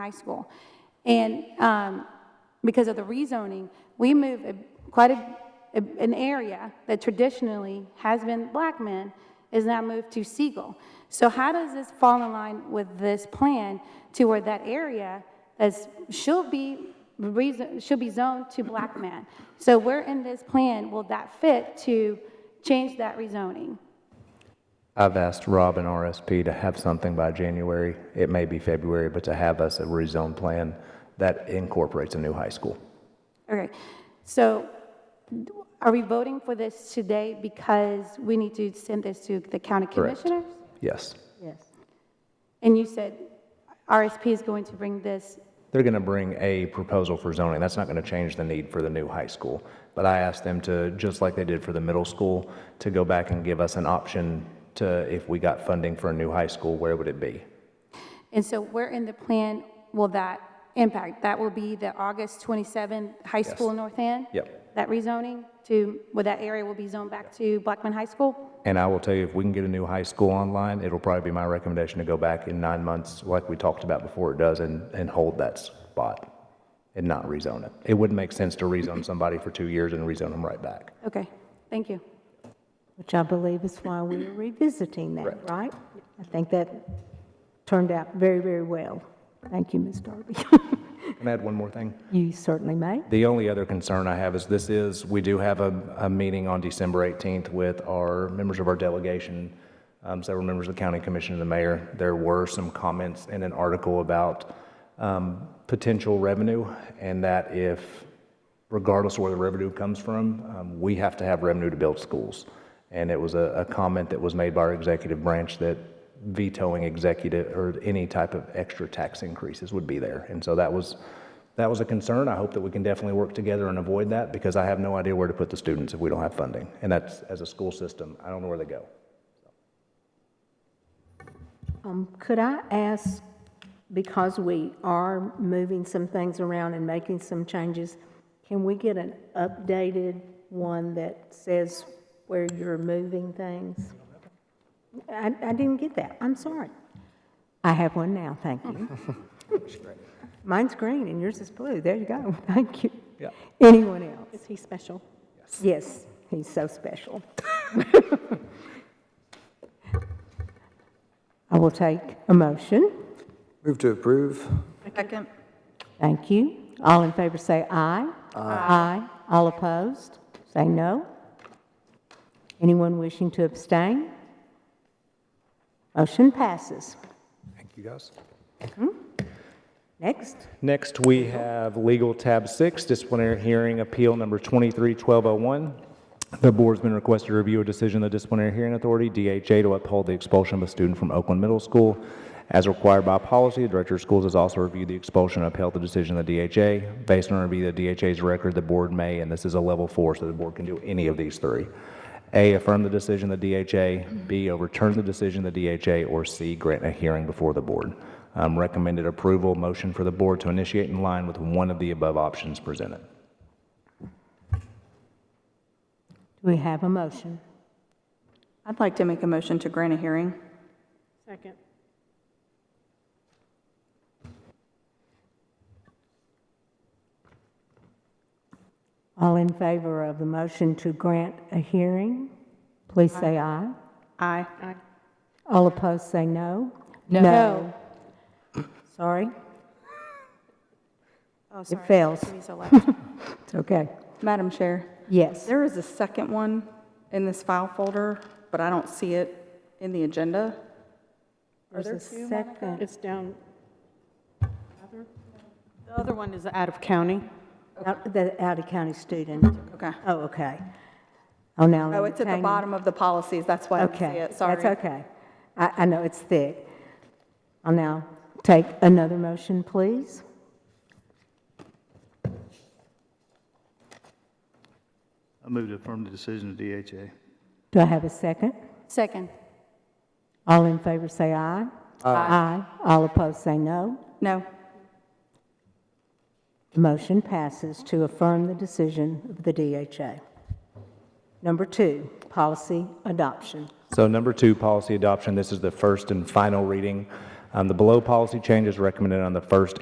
high school. And um, because of the rezoning, we moved a- quite a, a- an area that traditionally has been black men is now moved to Siegel. So how does this fall in line with this plan to where that area is, should be, reason- should be zoned to black men? So where in this plan will that fit to change that rezoning? I've asked Rob and RSP to have something by January. It may be February, but to have us a rezone plan that incorporates a new high school. Okay, so are we voting for this today because we need to send this to the county Correct. commissioners? Yes. Yes. And you said RSP is going to bring this, They're going to bring a proposal for zoning. That's not going to change the need for the new high school. But I asked them to, just like they did for the middle school, to go back and give us an option to, if we got funding for a new high school, where would it be? and so where in the plan will that impact? That will be the August 27 high school in North End? Yep. That rezoning to, where that area will be zoned back to Blackman High School? And I will tell you, if we can get a new high school online, it'll probably be my recommendation to go back in nine months, like we talked about before it does, and, and hold that spot and not rezone it. It wouldn't make sense to rezone somebody for two years and rezone them right back. Okay, thank you. Which I believe is why we we're revisiting that, right? I think that turned out very, very well. Thank you, Ms. Darby. Can I add one more thing? You certainly may. The only other concern I have is this is, we do have a, a meeting on December 18th with our, members of our delegation, um, several members of the county commission and the mayor. There were some comments in an article about um, potential revenue and that if, regardless of where the revenue comes from, um, we have to have revenue to build schools. And it was a, a comment that was made by our executive branch that vetoing executive or any type of extra tax increases would be there. And so that was, that was a concern. I hope that we can definitely work together and avoid that because I have no idea where to put the students if we don't have funding. And that's, as a school system, I don't know where they go. Um, Could I ask, because we are moving some things around and making some changes, can we get an updated one that says where you're moving things? I, I didn't get that, I'm sorry. I have one now, thank you. Mine's green and yours is blue, there you go, thank you. Yeah. Anyone else? Is he special? Yes, he's so special. I will take a motion. Move to approve. Second. Thank you. All in favor say aye. Aye. All opposed, say no. Anyone wishing to abstain? Motion passes. Thank you, guys. Next, Next, we have legal tab six, disciplinary hearing appeal number 23-1201. The board's been requested to review a decision of the disciplinary hearing authority, DHA, to uphold the expulsion of a student from Oakland Middle School. As required by policy, the director of schools has also reviewed the expulsion and upheld the decision of the DHA. Based on a review of the DHA's record, the board may, and this is a level four, so the board can do any of these three. A, affirm the decision of the DHA, B, overturn the decision of the DHA, or C, grant a hearing before the board. Um, Recommended approval, motion for the board to initiate in line with one of the above options presented. do we have a motion? I'd like to make a motion to grant a hearing. All in favor of the motion to grant a hearing, please say aye. Aye. All opposed, say no. No. Sorry, Oh, it fails. It's okay. Madam Chair, Yes, there is a second one in this file folder, but I don't see it in the agenda. there's a second. It's down. The other one is out of county. Out- The out-of-county student. Okay. Oh, okay. Oh, now. Oh, it's at the entertain- bottom of the policies, that's why I don't see Okay. it, sorry. That's okay. I, I know it's thick. I'll now take another motion, please. I move to affirm the decision of DHA. Do I have a second? Second, All in favor, say aye. Aye. All opposed, say no. No, The motion passes to affirm the decision of the DHA. Number two, policy adoption. So number two, policy adoption, this is the first and final reading. Um, The below policy changes recommended on the first